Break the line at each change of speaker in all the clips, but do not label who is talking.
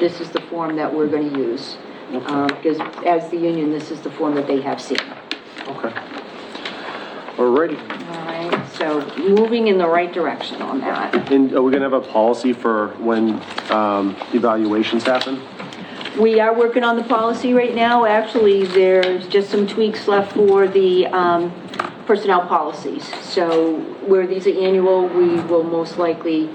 this is the form that we're gonna use. Um, because as the union, this is the form that they have seen.
Okay. Alrighty,
All right, so moving in the right direction on that.
and are we gonna have a policy for when, um, evaluations happen?
We are working on the policy right now. Actually, there's just some tweaks left for the, um, personnel policies. So where these are annual, we will most likely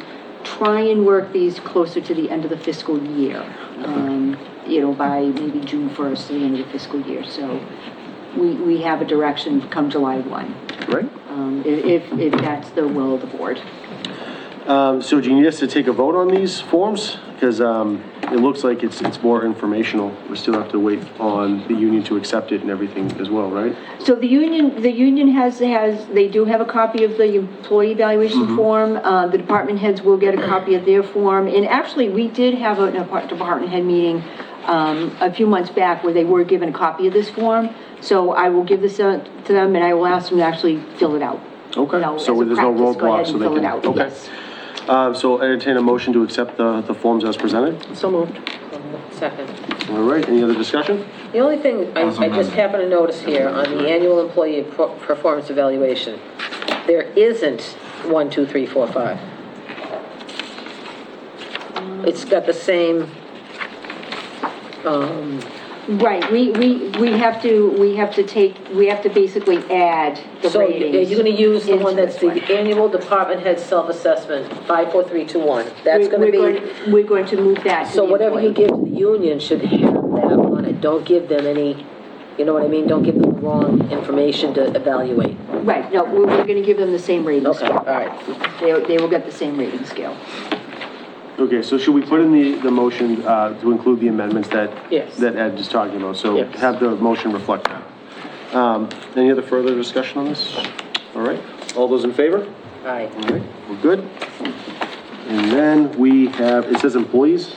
try and work these closer to the end of the fiscal year. Um, you know, by maybe June first, the end of the fiscal year, so we, we have a direction come July one.
Right?
Um, i- if, if that's the will of the board.
Um, so do you need us to take a vote on these forms? Because, um, it looks like it's, it's more informational. We still have to wait on the union to accept it and everything as well, right?
So the union, the union has, has, they do have a copy of the employee
Mm-hmm.
evaluation form. Uh, the department heads will get a copy of their form. And actually, we did have a an apart- department head meeting, um, a few months back where they were given a copy of this form. So I will give this out to them and I will ask them to actually fill it out.
Okay,
You know,
so
as a
there's no
practice, go ahead
roadblocks, so
and
they
fill it
can-
out,
okay.
yes.
Um, so I'll entertain a motion to accept the, the forms as presented.
So moved. Second.
All right, any other discussion?
The only thing I, I just happen to notice here on the annual employee pro- performance evaluation, there isn't one, two, three, four, five. It's got the same, um,
Right, we, we, we have to, we have to take, we have to basically add the
so you-
ratings.
you're gonna use the
into
one that's
this
the
one.
annual department head self-assessment, five, four, three, two, one.
We're-
That's gonna
we're
be,
going- We're going to move that to
so
the
whatever you
employee.
give to the union should have that on it. Don't give them any, you know what I mean? Don't give them wrong information to evaluate.
Right, no, we're, we're gonna give them the same rating
Okay, all
scale.
right.
They, they will get the same rating scale.
Okay, so should we put in the, the motion, uh, to include the amendments that?
Yes.
That Ed is talking about, so
Yes.
have the motion reflect that. Um, any other further discussion on this? All right, all those in favor?
Aye.
All right, we're good. And then we have, it says employees.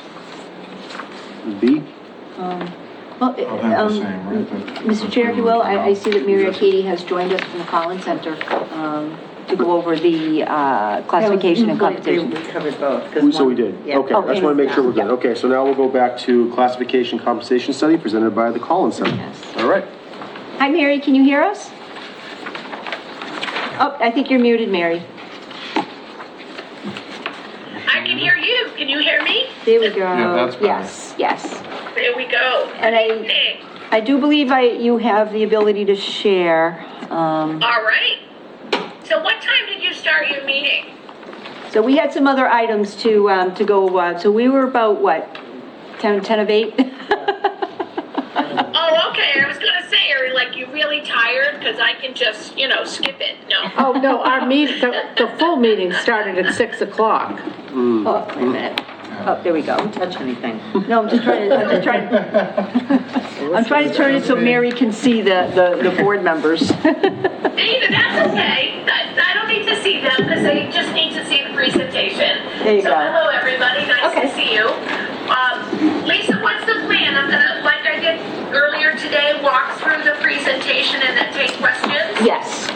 B,
Well,
I'll have Oh, the
um,
same, right? that-
Mr. Chair, if you will, I, I see that Mary Katie has joined us from the Collins Center, um, to go over the, uh, classification and compensation.
covered both.
We- so we did, okay, I just wanna make sure we're good,
Yeah.
okay, so now we'll go back to classification compensation study presented by the Collins Center.
Yes.
All right,
Hi, Mary, can you hear us? Oh, I think you're muted, Mary.
I can hear you. Can you hear me?
There we go.
that's better.
Yes, yes.
There we go.
And I,
Thanks.
I do believe I, you have the ability to share, um,
All right. So what time did you start your meeting?
So we had some other items to, um, to go, uh, so we were about, what, 10, 10 of 8?
Oh, okay. I was gonna say, are you, like you really tired? Because I can just, you know, skip it. No.
Oh, no, our meet, the, the full meeting started at 6 o'clock.
Oh, wait a minute. Oh, there we go.
touch anything.
No, I'm just trying to, I'm just trying, I'm trying to turn it so Mary can see the, the, the board members.
David, that's okay. I, I don't need to see them because I just need to see the presentation.
There you
so
go.
hello, everybody. Nice
Okay.
to see you. Um, Lisa, what's the plan? I'm gonna, like I did earlier today, walk through the presentation and then take questions.
Yes,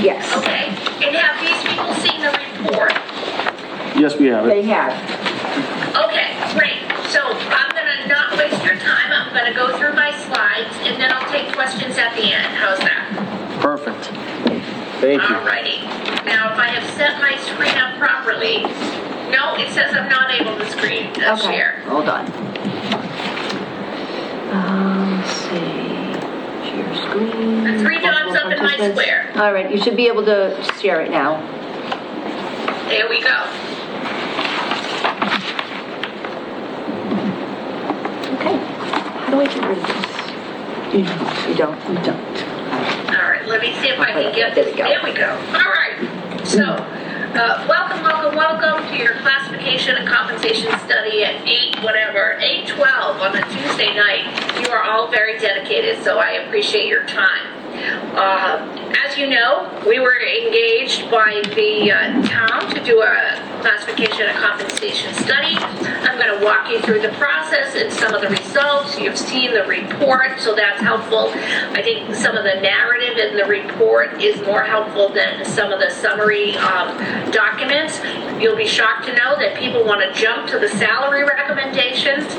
yes,
Okay, and have these people seen the report?
yes, we have it.
they have.
Okay, great. So I'm gonna not waste your time. I'm gonna go through my slides and then I'll take questions at the end. How's that?
Perfect. Thank you.
Alrighty. Now, if I have set my screen up properly, no, it says I'm not able to screen, uh,
Okay,
share.
Hold on. Um, let's see, share screen.
The three dots up in my
Participants.
square.
All right, you should be able to share it now.
There we go.
Okay, how do I get rid of this? You don't. You don't.
Alright, let me see if I can get this. There we go. Alright, so, uh, welcome, welcome, welcome to your classification and compensation study at eight, whatever, eight twelve on a Tuesday night. You are all very dedicated, so I appreciate your time. Uh, As you know, we were engaged by the uh, town to do a classification and compensation study. I'm going to walk you through the process and some of the results. You've seen the report, so that's helpful. I think some of the narrative in the report is more helpful than some of the summary um, documents. You'll be shocked to know that people want to jump to the salary recommendations